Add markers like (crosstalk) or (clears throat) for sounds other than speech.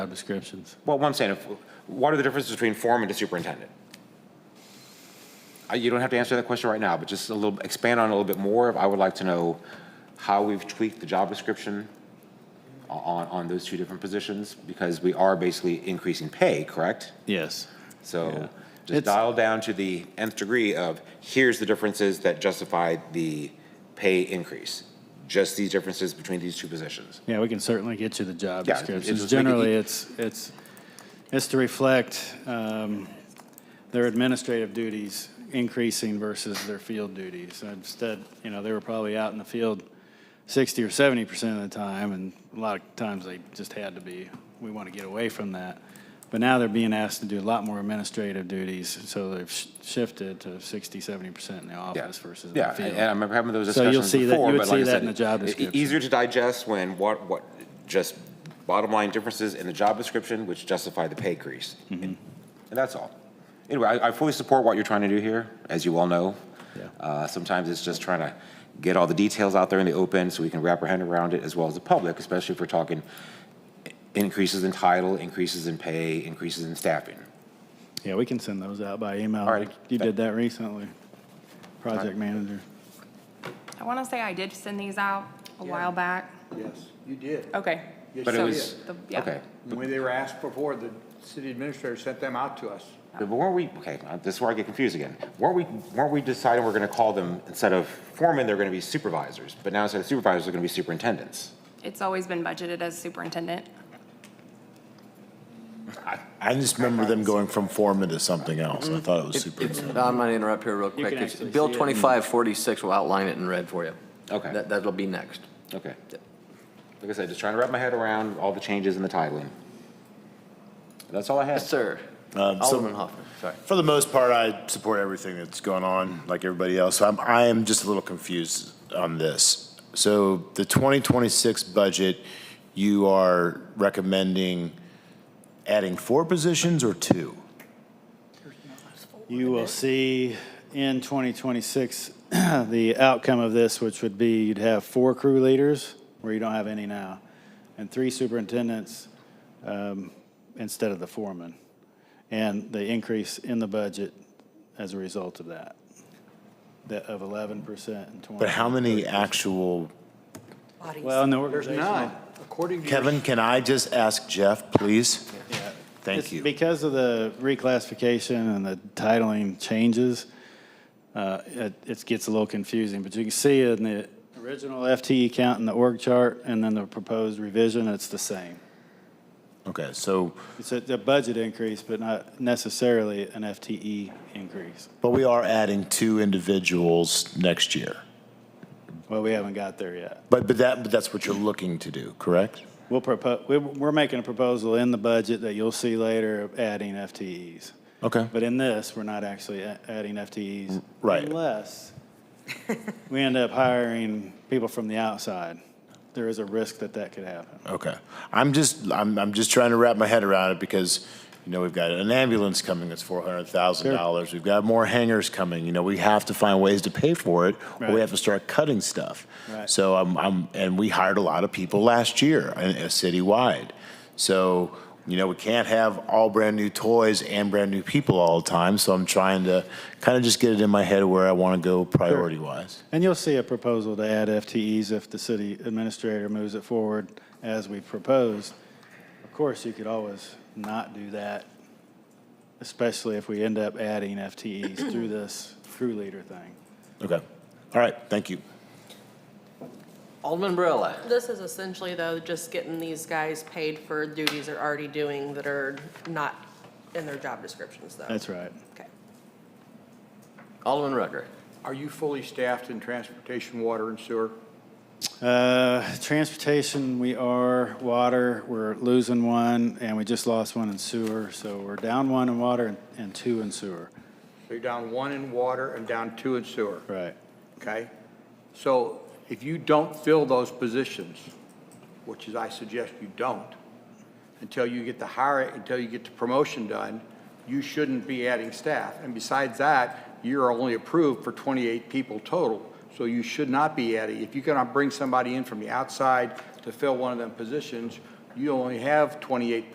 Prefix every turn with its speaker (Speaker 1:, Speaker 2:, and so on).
Speaker 1: Job descriptions.
Speaker 2: Well, what I'm saying, if- what are the differences between foreman to superintendent? Uh, You don't have to answer that question right now, but just a little, expand on it a little bit more. I would like to know how we've tweaked the job description o- on, on those two different positions, because we are basically increasing pay, correct?
Speaker 1: Yes.
Speaker 2: So
Speaker 1: It's-
Speaker 2: just dial down to the nth degree of, here's the differences that justify the pay increase. Just these differences between these two positions.
Speaker 1: Yeah, we can certainly get you the job
Speaker 2: Yeah, it's-
Speaker 1: descriptions.
Speaker 2: it's make it
Speaker 1: Generally,
Speaker 2: ea-
Speaker 1: it's, it's, it's to reflect um, their administrative duties increasing versus their field duties. Instead, you know, they were probably out in the field 60 or 70 percent of the time, and a lot of times they just had to be. We want to get away from that. But now they're being asked to do a lot more administrative duties, so they've sh- shifted to 60, 70 percent in the
Speaker 2: Yeah.
Speaker 1: office versus in
Speaker 2: Yeah,
Speaker 1: the field.
Speaker 2: and I remember having those
Speaker 1: So you'll
Speaker 2: discussions
Speaker 1: see that- you
Speaker 2: before,
Speaker 1: would
Speaker 2: but
Speaker 1: see
Speaker 2: like I
Speaker 1: that
Speaker 2: said,
Speaker 1: in the job
Speaker 2: e-
Speaker 1: description.
Speaker 2: Easier to digest when what, what, just bottom line differences in the job description which justify the pay increase.
Speaker 1: Mm-hmm.
Speaker 2: And that's all. Anyway, I, I fully support what you're trying to do here, as you all know.
Speaker 1: Yeah.
Speaker 2: Uh, sometimes it's just trying to get all the details out there in the open so we can wrap our head around it as well as the public, especially if we're talking increases in title, increases in pay, increases in staffing.
Speaker 1: Yeah, we can send those out by email.
Speaker 2: All right.
Speaker 1: You did that recently, project manager.
Speaker 3: I want to say I did send these out a while back.
Speaker 4: Yes, you did.
Speaker 3: Okay.
Speaker 4: Yes,
Speaker 2: But it
Speaker 3: So,
Speaker 4: you
Speaker 2: was,
Speaker 4: did.
Speaker 3: the- yeah.
Speaker 2: okay.
Speaker 4: When they were asked before, the city administrator sent them out to us.
Speaker 2: But weren't we, okay, uh, this is where I get confused again. Weren't we, weren't we deciding we're gonna call them, instead of foremen, they're gonna be supervisors? But now instead of supervisors, they're gonna be superintendents?
Speaker 3: It's always been budgeted as superintendent.
Speaker 5: I just remember them going from foreman to something else. I thought Mm-hmm. it was superintendent.
Speaker 6: Don, I'm going to interrupt here real quick.
Speaker 1: can
Speaker 6: It's-
Speaker 1: actually
Speaker 6: Bill
Speaker 1: see it.
Speaker 6: 2546 will outline it in red for you.
Speaker 2: Okay.
Speaker 6: That- That'll be next.
Speaker 2: Okay. Like I said, just trying to wrap my head around all the changes in the titling. That's all I had.
Speaker 6: Yes, sir.
Speaker 5: Um, so-
Speaker 6: Alderman Hoffman, sorry.
Speaker 5: For the most part, I support everything that's going on, like everybody else. So I'm, I am just a little confused on this. So the 2026 budget, you are recommending adding four positions or two?
Speaker 1: You will see in 2026, (clears throat) the outcome of this, which would be you'd have four crew leaders, where you don't have any now, and three superintendents um, instead of the foreman, and the increase in the budget as a result of that, that of 11% and 20.
Speaker 5: But how many actual
Speaker 1: Well, in the
Speaker 4: There's
Speaker 1: organizational.
Speaker 4: none, according to. your-
Speaker 5: Kevin, can I just ask Jeff, please? Thank
Speaker 1: It's
Speaker 5: you.
Speaker 1: Because of the reclassification and the titling changes, uh, it it gets a little confusing, but you can see in the original FTE count in the org chart and then the proposed revision, it's the same.
Speaker 5: Okay, so,
Speaker 1: It's a a budget increase, but not necessarily an FTE increase.
Speaker 5: but we are adding two individuals next year.
Speaker 1: Well, we haven't got there yet.
Speaker 5: But, but that, but that's what you're looking to do, correct?
Speaker 1: We'll propose, we're making a proposal in the budget that you'll see later of adding FTEs.
Speaker 5: Okay.
Speaker 1: But in this, we're not actually a- adding FTEs.
Speaker 5: Right.
Speaker 1: Unless we end up hiring people from the outside. There is a risk that that could happen.
Speaker 5: Okay. I'm just, I'm, I'm just trying to wrap my head around it because, you know, we've got an ambulance coming that's four hundred thousand dollars. We've got more hangars coming, you know, we have to find ways to pay for it or
Speaker 1: Right.
Speaker 5: we have to start cutting stuff.
Speaker 1: Right.
Speaker 5: So I'm, I'm, and we hired a lot of people last year, uh, uh, citywide. So, you know, we can't have all brand-new toys and brand-new people all the time, so I'm trying to kind of just get it in my head where I want to go priority-wise.
Speaker 1: And you'll see a proposal to add FTEs if the city administrator moves it forward as we proposed. Of course, you could always not do that, especially if we end up adding FTEs through this crew leader thing.
Speaker 5: Okay. All right, thank you.
Speaker 6: Alderman Barilla.
Speaker 7: This is essentially, though, just getting these guys paid for duties they're already doing that are not in their job descriptions, though.
Speaker 1: That's right.
Speaker 7: Okay.
Speaker 6: Alderman Rucker.
Speaker 4: Are you fully staffed in transportation, water, and sewer?
Speaker 1: Uh, Transportation, we are, water, we're losing one, and we just lost one in sewer, so we're down one in water and- and two in sewer.
Speaker 4: So you're down one in water and down two in sewer,
Speaker 1: Right.
Speaker 4: okay? So if you don't fill those positions, which is I suggest you don't, until you get the hire, until you get the promotion done, you shouldn't be adding staff. And besides that, you're only approved for 28 people total, so you should not be adding. If you're going to bring somebody in from the outside to fill one of them positions, you only have 28